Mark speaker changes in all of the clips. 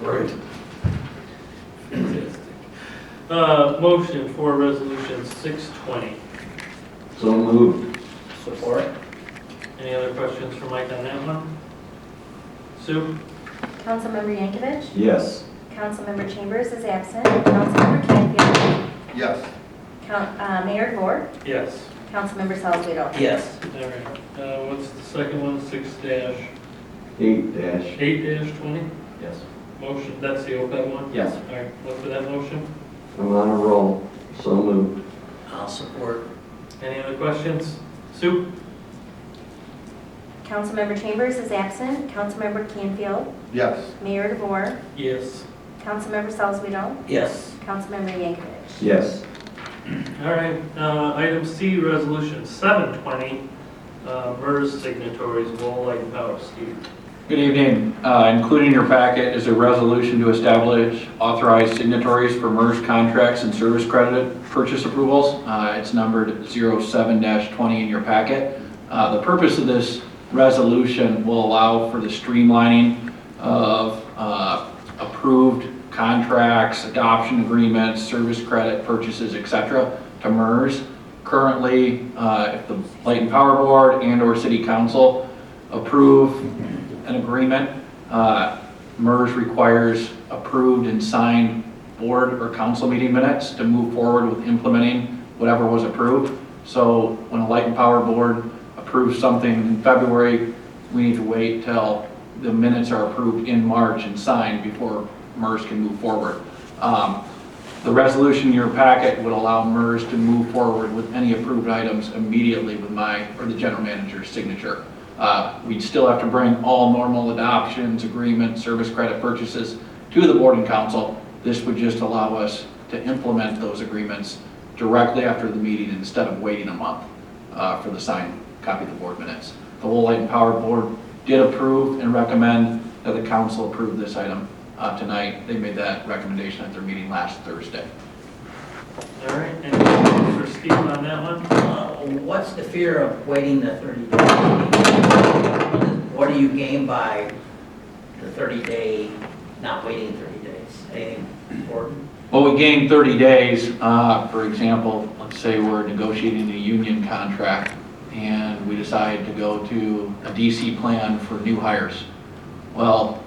Speaker 1: Right.
Speaker 2: Fantastic. Uh, motion for resolution six twenty.
Speaker 1: So moved.
Speaker 3: Support?
Speaker 2: Any other questions for Mike on that one? Sue?
Speaker 4: Councilmember Yankovic?
Speaker 1: Yes.
Speaker 4: Councilmember Chambers is absent. Councilmember Canfield?
Speaker 5: Yes.
Speaker 4: Coun- uh, Mayor Moore?
Speaker 2: Yes.
Speaker 4: Councilmember Salzweedl?
Speaker 3: Yes.
Speaker 2: All right, uh, what's the second one, six dash,
Speaker 1: Eight dash.
Speaker 2: eight dash twenty?
Speaker 1: Yes.
Speaker 2: Motion, that's the OPEB one?
Speaker 1: Yes.
Speaker 2: All right, look for that motion.
Speaker 1: I'm on a roll. So moved.
Speaker 3: I'll support.
Speaker 2: Any other questions? Sue?
Speaker 4: Councilmember Chambers is absent. Councilmember Canfield?
Speaker 5: Yes.
Speaker 4: Mayor DeVore?
Speaker 2: Yes.
Speaker 4: Councilmember Salzweedl?
Speaker 3: Yes.
Speaker 4: Councilmember Yankovic?
Speaker 1: Yes.
Speaker 2: All right, uh, item C, resolution seven twenty, uh, MERS signatories, Wall Light Power, Steve.
Speaker 6: Good evening. Uh, Included in your packet is a resolution to establish authorized signatories for MERS contracts and service credit purchase approvals. Uh, It's numbered 07-20 in your packet. Uh, The purpose of this resolution will allow for the streamlining of uh, approved contracts, adoption agreements, service credit purchases, et cetera, to MERS. Currently, uh, if the Light and Power Board and/or City Council approve an agreement. Uh, MERS requires approved and signed board or council meeting minutes to move forward with implementing whatever was approved. So when a light and power board approves something in February, we need to wait till the minutes are approved in March and signed before MERS can move forward. Um, The resolution in your packet would allow MERS to move forward with any approved items immediately with my, or the general manager's signature. Uh, We'd still have to bring all normal adoptions, agreements, service credit purchases to the board and council. This would just allow us to implement those agreements directly after the meeting instead of waiting a month uh, for the signed copy of the board minutes. The Lowell Light and Power Board did approve and recommend that the council approve this item uh, tonight. They made that recommendation at their meeting last Thursday.
Speaker 2: All right, any questions for Steve on that one?
Speaker 3: Uh, What's the fear of waiting the 30 days? What do you gain by the 30 day, not waiting 30 days? Anything important?
Speaker 6: Well, we gain 30 days, uh, for example, let's say we're negotiating a union contract and we decide to go to a DC plan for new hires. Well,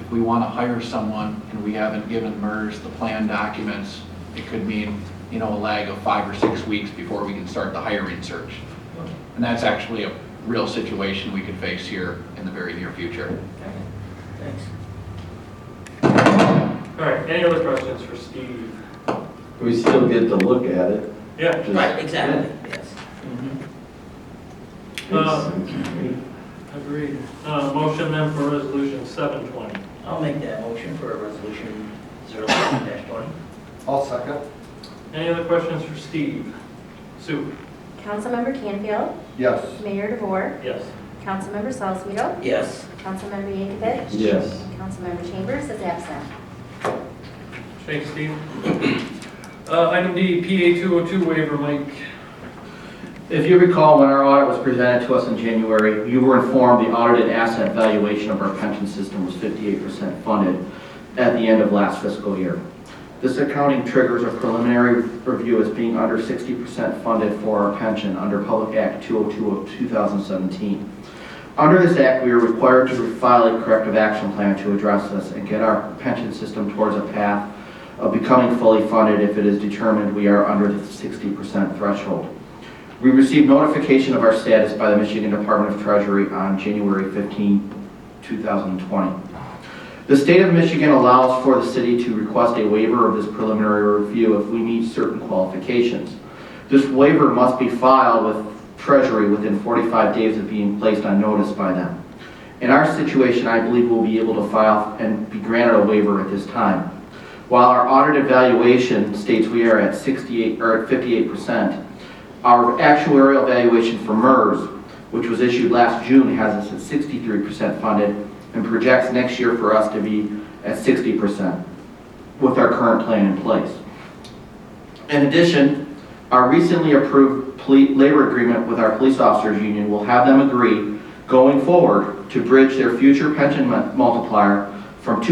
Speaker 6: if we want to hire someone and we haven't given MERS the plan documents, it could mean, you know, a lag of five or six weeks before we can start the hiring search. And that's actually a real situation we could face here in the very near future.
Speaker 3: Thanks.
Speaker 2: All right, any other questions for Steve?
Speaker 1: We still get to look at it.
Speaker 2: Yeah,
Speaker 1: just-
Speaker 3: Right, exactly, yes.
Speaker 2: Mm-hmm. Uh, agreed. Uh, motion then for resolution seven twenty.
Speaker 3: I'll make that motion for resolution 07-20.
Speaker 5: I'll second.
Speaker 2: Any other questions for Steve? Sue?
Speaker 4: Councilmember Canfield?
Speaker 5: Yes.
Speaker 4: Mayor DeVore?
Speaker 2: Yes.
Speaker 4: Councilmember Salzweedl?
Speaker 3: Yes.
Speaker 4: Councilmember Yankovic?
Speaker 1: Yes.
Speaker 4: Councilmember Chambers is absent.
Speaker 2: Thanks, Steve. Uh, item D, PA two oh two waiver, Mike.
Speaker 7: If you recall, when our audit was presented to us in January, you were informed the audited asset valuation of our pension system was 58% funded at the end of last fiscal year. This accounting triggers a preliminary review as being under 60% funded for our pension under Public Act 202 of 2017. Under this act, we are required to file a corrective action plan to address this and get our pension system towards a path of becoming fully funded if it is determined we are under the 60% threshold. We received notification of our status by the Michigan Department of Treasury on January 15, 2020. The state of Michigan allows for the city to request a waiver of this preliminary review if we meet certain qualifications. This waiver must be filed with Treasury within 45 days of being placed on notice by them. In our situation, I believe we'll be able to file and be granted a waiver at this time. While our audit evaluation states we are at 68, or at 58%, our actuarial valuation for MERS, which was issued last June, has us at 63% funded and projects next year for us to be at 60% with our current plan in place. In addition, our recently approved poli- labor agreement with our police officers union will have them agree going forward to bridge their future pension mu- multiplier from 2